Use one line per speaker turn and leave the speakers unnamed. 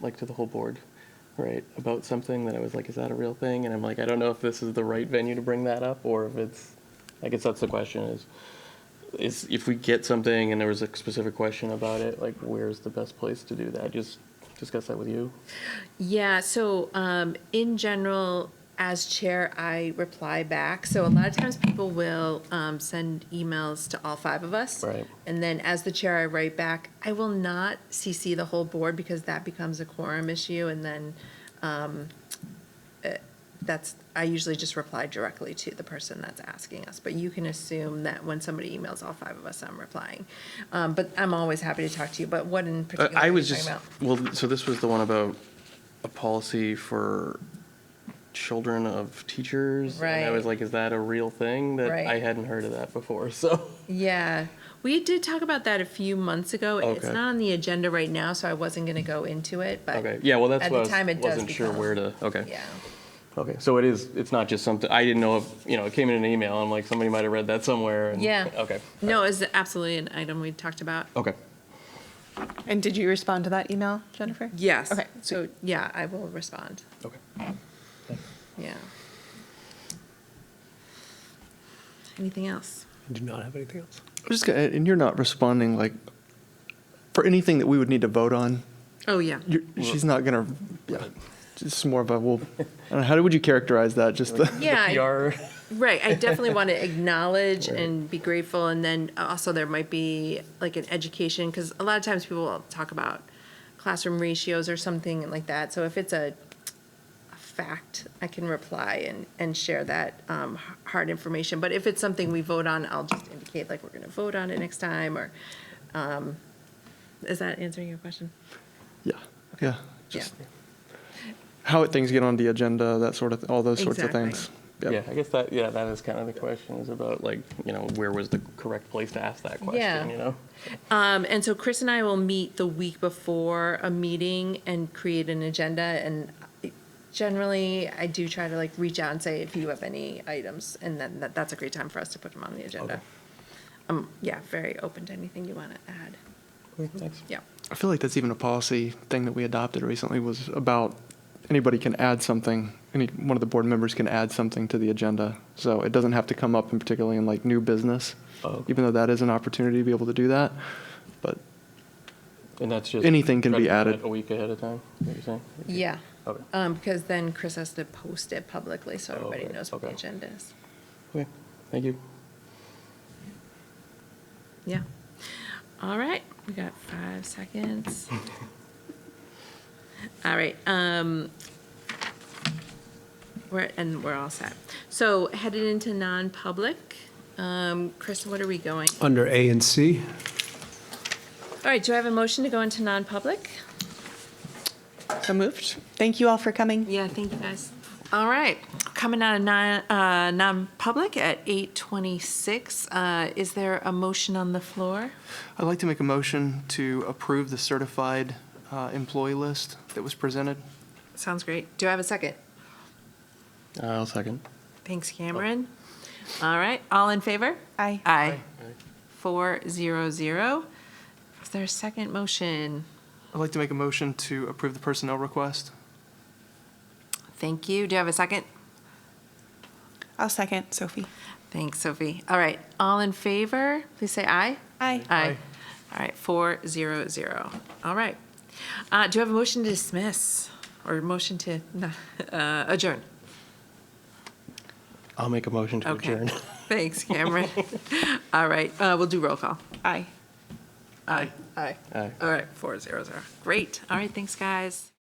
like to the whole board, right, about something that I was like, is that a real thing? And I'm like, I don't know if this is the right venue to bring that up or if it's, I guess that's the question is, is if we get something and there was a specific question about it, like where's the best place to do that? Just discuss that with you.
Yeah, so um, in general, as chair, I reply back. So a lot of times people will um, send emails to all five of us.
Right.
And then as the chair, I write back. I will not CC the whole board because that becomes a quorum issue. And then um, eh, that's, I usually just reply directly to the person that's asking us. But you can assume that when somebody emails all five of us, I'm replying. Um, but I'm always happy to talk to you. But what in
Uh,
particular?
I
are
was
you
just,
talking about?
well, so this was the one about a policy for children of teachers. And I was
Right.
like, is that a real thing? That I
Right.
hadn't heard of that before, so.
Yeah, we did talk about that a few months ago. It's
Okay.
not on the agenda right now, so I wasn't going to go into it, but
Okay, yeah, well, that's
At
what I
the
was-
time, it does
wasn't sure
become-
where to, okay.
yeah.
Okay, so it is, it's not just something, I didn't know if, you know, it came in an email, I'm like, somebody might have read that somewhere. and-
Yeah.
Okay.
No, it's absolutely an item we talked about.
Okay.
And did you respond to that email, Jennifer?
Yes.
Okay,
So, yeah, I will respond.
Okay.
Yeah. Anything else?
I do not have anything else.
I'm just gonna, and you're not responding like for anything that we would need to vote on.
Oh, yeah.
You're, she's not gonna. Yeah, just more of a. Well, I don't know, how would you characterize that? Just the,
Yeah. I-
PR,
Right, I definitely want to acknowledge and be grateful, and then also there might be like an education, because a lot of times people will talk about classroom ratios or something like that, so if it's a, a fact, I can reply and, and share that, um, h- hard information, but if it's something we vote on, I'll just indicate like we're gonna vote on it next time, or, um, is that answering your question?
yeah, yeah.
Yeah.
Just how things get on the agenda, that sort of, all those sorts
Exactly.
of things.
yeah, I guess that, yeah, that is kind of the question, is about like, you know, where was the correct place to ask that
Yeah.
question, you know?
Um, and so Chris and I will meet the week before a meeting and create an agenda. And generally, I do try to like reach out and say if you have any items, and then that, that's a great time for us to put them on the agenda. Um, yeah, very open to anything you want to add.
Thanks.
Yeah.
I feel like that's even a policy thing that we adopted recently was about anybody can add something. Any one of the board members can add something to the agenda, so it doesn't have to come up in particularly in like new business.
Oh, okay.
Even though that is an opportunity to be able to do that, but
And that's just.
Anything can
try to
be
do that
added.
A week ahead of time, is what you're saying?
Yeah.
Okay.
Um, because then Chris has to post it publicly so
Oh,
everybody
right.
knows what the
Okay.
agenda is.
Okay, thank you.
Yeah. All right, we got five seconds. All right, um, we're, and we're all set. So headed into non-public, um, Chris, what are we going?
Under A and C,
All right, do I have a motion to go into non-public?
So moved. Thank you all for coming.
Yeah, thank you guys. All right, coming out of non, uh, non-public at eight twenty-six, uh, is there a motion on the floor?
I'd like to make a motion to approve the certified uh, employee list that was presented.
Sounds great. Do I have a second?
I'll second.
Thanks, Cameron. All right, all in favor?
Aye.
Aye. Four zero zero. Is there a second motion?
I'd like to make a motion to approve the personnel request.
Thank you. Do you have a second?
I'll second, Sophie.
Thanks, Sophie. All right, all in favor, please say aye.
Aye.
Aye. All right, four zero zero. All right. Uh, do you have a motion to dismiss or motion to uh, adjourn?
I'll make a motion to
Okay.
adjourn.
Thanks, Cameron. All right, uh, we'll do roll call.
Aye.
Aye. Aye.
Aye.
All right, four zero zero. Great. All right, thanks, guys.